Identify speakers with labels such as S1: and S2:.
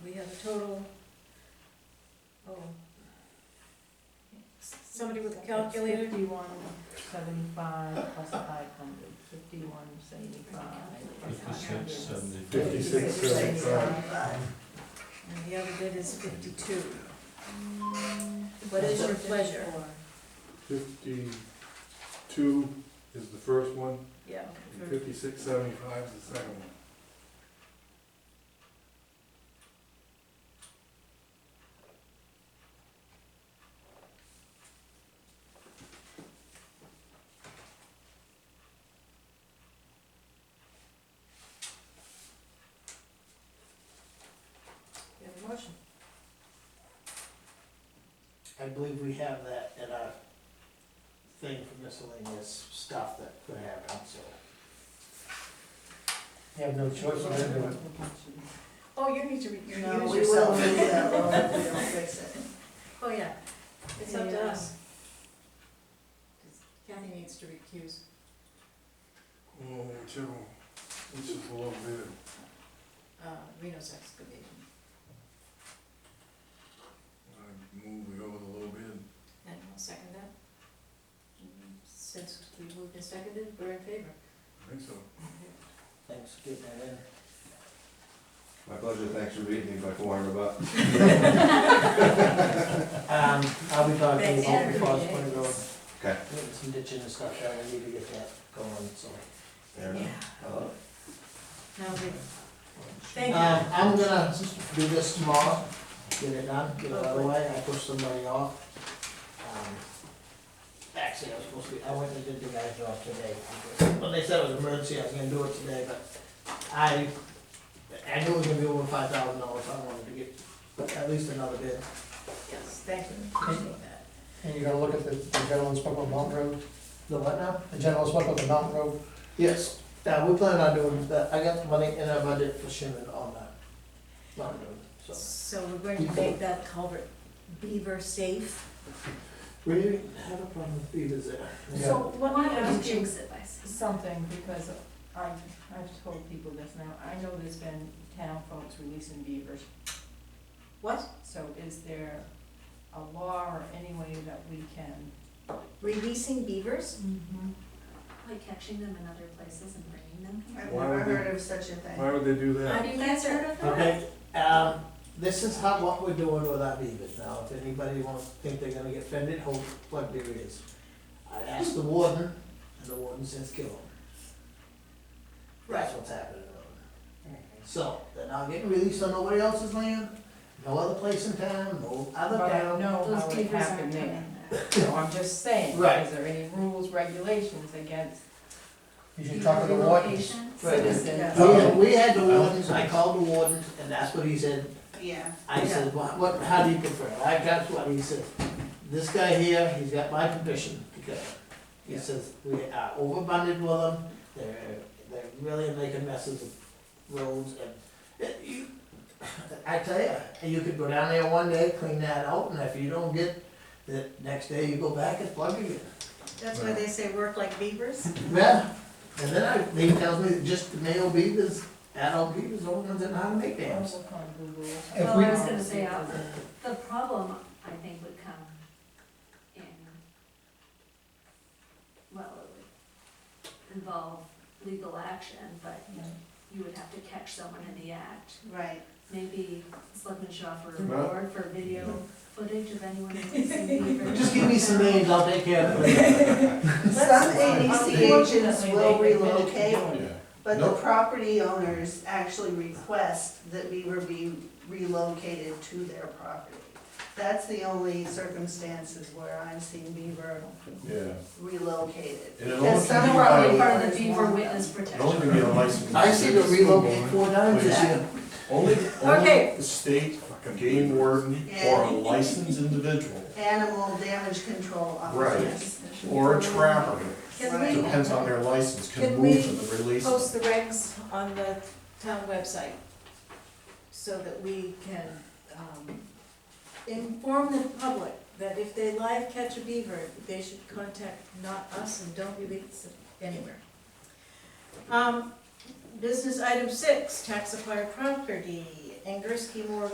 S1: total, oh. Somebody with a calculator?
S2: Fifty-one seventy-five plus five hundred, fifty-one seventy-five.
S3: Fifty-six, seventy-five.
S4: Fifty-six, seventy-five.
S1: And the other bid is fifty-two. What is your pleasure?
S4: Fifty-two is the first one,
S1: Yeah.
S4: and fifty-six, seventy-five is the second one.
S1: You have a motion?
S5: I believe we have that in our thing for miscellaneous stuff that could happen, so. You have no choice but to do it.
S1: Oh, you need to re-
S2: No,
S1: recuse
S2: we will
S1: yourself.
S2: lose that one if we don't fix it.
S1: Oh, yeah, it's up to
S2: Yeah.
S1: us. Kathy needs to recuse.
S4: Oh, whichever, one, which is the low bid.
S1: uh, Reno's excavation.
S4: I move we go with the low bid.
S1: And I'll second that. Since we moved and seconded, we're in favor.
S4: I think so.
S5: Thanks for getting that in.
S6: My pleasure, thanks for beating me by four hundred bucks.
S5: Um, I'll be talking
S1: Thanks,
S5: about the Falls
S1: everybody.
S5: Point Road,
S6: Okay.
S5: getting some ditching and stuff done, I need to get that going, so.
S6: Fair enough. I love it.
S1: Now we, thank
S5: Um,
S1: you.
S5: I'm gonna do this tomorrow, get it done, get it out of the way, I pushed somebody off. Um, Actually, I was supposed to, be- I went and did the guy's job today, because- well, they said it was an emergency, I was gonna do it today, but I, I knew it was gonna be over five thousand dollars, I wanted to get at least another bid.
S1: Yes, thank you. Appreciate that.
S5: And you're gonna look at the, the gentleman's spoke on Mountain Road? The what now? The gentleman's spoke on the Mountain Road? Yes, yeah, we plan on doing that, I got the money in our budget for Shannon on that, Mountain Road, so.
S1: So we're going to make that culvert beaver safe.
S5: We didn't have a problem with beavers there.
S7: So let
S2: Why
S7: me
S2: don't
S7: ask
S2: you
S7: you
S2: jinx
S7: s-
S2: Something, because I've, I've told people this now, I know there's been town folks releasing beavers.
S1: What?
S2: So is there a law or any way that we can?
S1: Releasing beavers?
S7: like catching them in other places and bringing them here?
S4: I've never heard
S2: of such a thing.
S4: Why would they do that?
S1: Have you guys heard of that?
S5: Okay, um, this is how, what we're doing with our beavers now, if anybody wants, think they're gonna get offended, hold plug their ears. I asked the warden, and the warden says kill them. That's what's happening. on it. So, they're not getting released on nobody else's land, no other place in town, no other
S2: But I
S5: town.
S2: know how
S7: Those
S2: it
S7: beavers
S2: happened
S7: aren't
S2: there,
S7: coming back.
S2: so I'm just saying,
S5: Right.
S2: is there any rules, regulations against
S8: You
S7: Beaver
S8: should talk to the Oh. warden.
S7: relocations.
S5: Right.
S2: citizens?
S5: We had, we had the wardens, I called the warden, and that's what he said,
S9: Yeah,
S5: I said, what, what, how do you prefer? I got what he said. This guy here, he's got my permission to go. He says, we are overbundled with them, they're, they're really making messes of roads and, it- you, I tell you, you could go down there one day, clean that out, and if you don't get, the next day you go back and plug again.
S1: That's why they say work like beavers?
S5: Yeah, and then I, he tells me that just the male beavers, adult beavers, old ones that know how to make dams.
S2: Look on Google.
S8: If
S7: Well,
S8: we-
S7: I was gonna say, uh, the problem, I think, would come in, well, it would involve legal action, but you would have to catch someone in the act.
S9: right.
S7: Maybe Selectman Shaw for a
S4: Well-
S7: reward for video footage of anyone releasing beavers.
S5: Just give me some names, I'll take care of it.
S9: Some ADC agents
S2: Unfortunately,
S9: will
S2: they- they admitted to
S9: relocate,
S2: doing it.
S9: but the
S6: Nope.
S9: property owners actually request that Beaver be relocated to their property. That's the only circumstances where I've seen Beaver
S4: Yeah.
S9: relocated.
S6: And it
S9: Because
S6: only
S9: some
S6: can be
S9: property
S6: by-
S7: Part of
S9: owners
S7: the beaver
S9: want them.
S7: witness protection.
S6: Only to be a licensed.
S5: I see the relocate four times this year.
S6: Only,
S1: Okay.
S6: only the state game warden or a licensed individual
S9: Animal damage control officers.
S6: or a trapper,
S1: Can we
S6: depends on their license, can
S1: Can
S6: move
S1: we
S6: to the release.
S1: post the regs on the town website so that we can um, inform the public that if they live catch a beaver, they should contact not us and don't release it anywhere. Um, Business item six, tax acquired property, Angerski Moore